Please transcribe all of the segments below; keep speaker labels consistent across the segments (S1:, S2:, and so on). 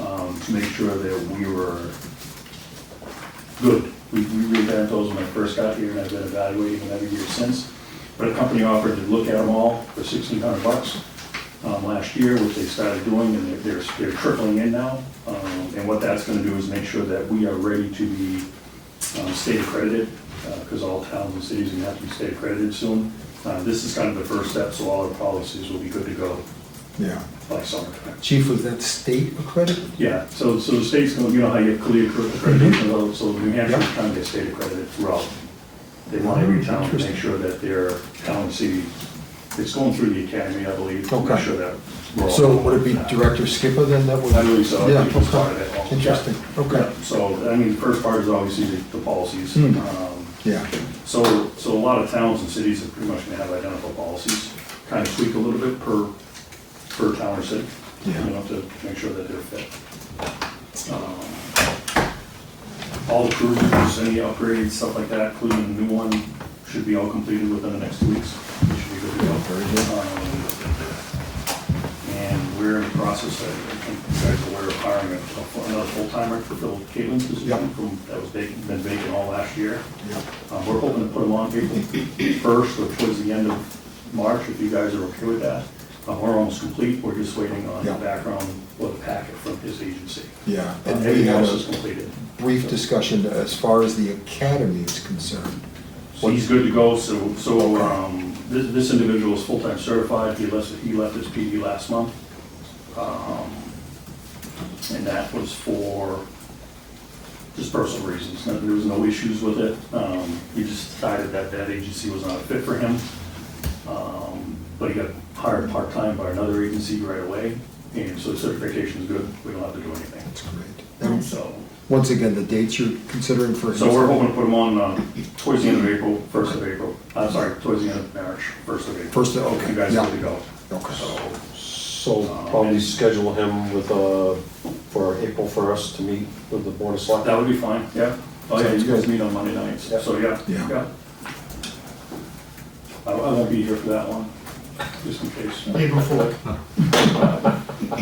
S1: um, to make sure that we were good. We we revamped those when I first got here, and I've been evaluating them every year since. But a company offered to look at them all for sixteen hundred bucks um, last year, which they started doing, and they're, they're- they're trickling in now. Um, And what that's gonna do is make sure that we are ready to be um, state accredited, because all towns and cities are gonna have to be state accredited soon. Uh, This is kind of the first step, so all our policies will be good to go
S2: Yeah.
S1: by summertime.
S2: Chief, was that state accredited?
S1: Yeah, so, so the state's going, you know how you have clear
S2: Mm-hmm.
S1: accreditation, well, so New Hampshire's trying to get state accredited throughout. They want
S2: Mm-hmm.
S1: every town to make sure that their town and city, it's going through the academy, I believe, to make
S2: Okay.
S1: sure that we're all.
S2: So would it be Director Skipper then that would?
S1: I believe so. I
S2: Yeah,
S1: think it's part of
S2: okay.
S1: it all.
S2: Interesting, okay.
S1: Yeah, So, I mean, the first part is obviously the the policies.
S2: Hmm.
S1: Um,
S2: Yeah,
S1: So, so a lot of towns and cities are pretty much gonna have identical policies, kind of tweak a little bit per, per town or city. You
S2: Yeah.
S1: know, to make sure that they're fit. Um, All improvements, any upgrades, stuff like that, including the new one, should be all completed within the next two weeks. We should be good to go.
S2: Very good.
S1: Um, And we're in the process, I think you guys are aware of hiring a- a- another full-timer to fill Caitlin's position
S2: Yep.
S1: from, that was vacant, been vacant all last year.
S2: yeah.
S1: Um, We're hoping to put them on April 1st or towards the end of March, if you guys are okay with that. Um, We're almost complete, we're just waiting on the
S2: Yeah.
S1: background or the packet from his agency.
S2: Yeah,
S1: Uh,
S2: and we
S1: Everything
S2: had
S1: else is
S2: a
S1: completed.
S2: brief discussion as far as the academy is concerned.
S1: So he's good to go, so, so um, this this individual is full-time certified, he left, he left his PD last month. Um, And that was for just personal reasons, No- there was no issues with it. Um, He just decided that that agency was not a fit for him. Um, But he got hired part-time by another agency right away, and so his certification's good, we don't have to do anything.
S2: That's great. And
S1: So,
S2: once again, the dates you're considering for.
S1: so we're hoping to put them on um, towards the end of April, first of April, I'm sorry, towards the end of March, first of April.
S2: First of- okay,
S1: You guys
S2: yeah.
S1: good to go.
S2: Okay.
S1: So,
S3: So probably schedule him with, uh, for April first to meet with the Board of
S1: that
S3: Selectmen.
S1: would be fine, yeah. Oh, yeah,
S2: Sounds
S1: you guys
S2: good.
S1: meet on Monday nights,
S3: Yeah.
S1: so yeah,
S2: Yeah.
S1: yeah. I I won't be here for that one, just in case.
S4: April fourth.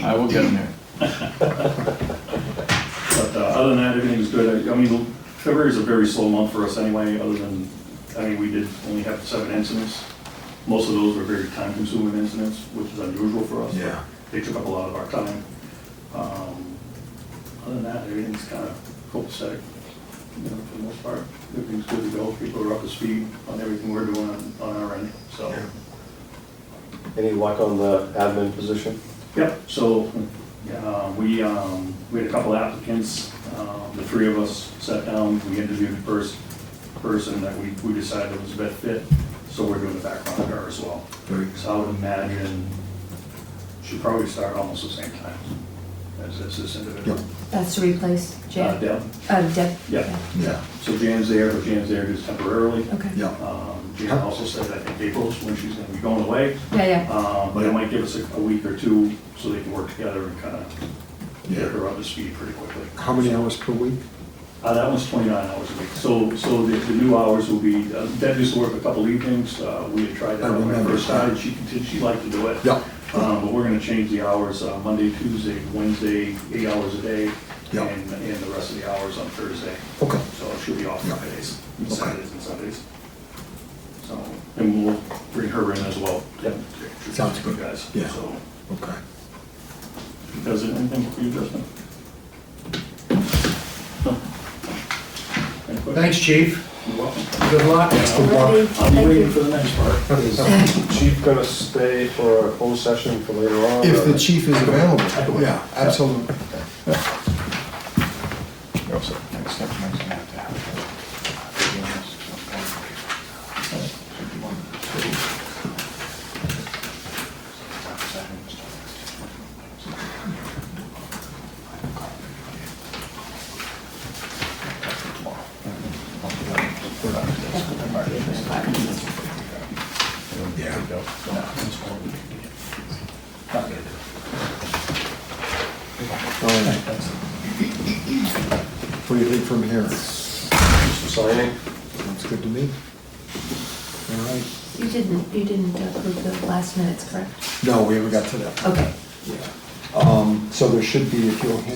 S4: I will get in there.
S1: But uh, other than that, everything's good. I I mean, February is a very slow month for us anyway, other than, I mean, we did only have seven incidents. Most of those were very time-consuming incidents, which is unusual for us. but
S2: Yeah.
S1: They took up a lot of our time. Um, Other than that, everything's kind of copacetic, you know, for the most part. Everything's good to go. People are up to speed on everything we're doing on- on our end, so.
S3: Any luck on the admin position?
S1: Yep, so, uh, we, um, we had a couple applicants, um, the three of us sat down, we interviewed the first person that we, we decided was the best fit, so we're doing the background on her as well.
S2: Very good.
S1: So I would imagine she'd probably start almost the same time as as this individual.
S2: Yep.
S5: That's to replace
S1: Uh,
S5: Jan?
S1: Deb,
S5: Uh, Deb?
S1: yeah,
S2: Yeah,
S1: so Jan's there, but Jan's there just temporarily.
S5: Okay.
S2: yeah,
S1: Um, Jan also said, I think April's when she's gonna be going away,
S5: Yeah, yeah.
S1: um, but it might give us a a week or two so they can work together and kind of get
S2: yeah.
S1: her up to speed pretty quickly.
S2: How many hours per week?
S1: Uh, that one's twenty-nine hours a week, so, so the, the new hours will be, uh, Deb used to work a couple evenings, uh, we had tried that
S2: I
S1: when I
S2: remember.
S1: first started, she continued, she liked to do it.
S2: Yeah.
S1: Um, but we're gonna change the hours, uh, Monday, Tuesday, Wednesday, eight hours a day,
S2: Yeah.
S1: and, and the rest of the hours on Thursday,
S2: Okay,
S1: so she'll be off
S2: Yeah.
S1: Fridays, and
S2: Okay.
S1: Saturdays and Sundays. So, and we'll bring her in as well.
S3: Yep.
S2: Sounds good.
S1: You guys,
S2: Yeah.
S1: so,
S2: okay.
S1: does it anything for you, Justin? No? Any questions?
S4: Thanks, chief.
S1: You're welcome.
S4: Good luck.
S1: Oh,
S5: Ready?
S1: I'll be
S5: Thank
S1: waiting
S5: you.
S1: for the next part.
S3: Is the chief gonna stay for a closed session for later on?
S2: If
S3: or-
S2: the chief is available, yeah, absolutely. Yeah. All right. What do you think from here? Sounds
S3: Signing?
S2: good to me. All right.
S5: You didn't, you didn't approve the last minutes, correct?
S2: No, we haven't got to that.
S5: Okay.
S2: Yeah. Um, so there should be, if you'll hand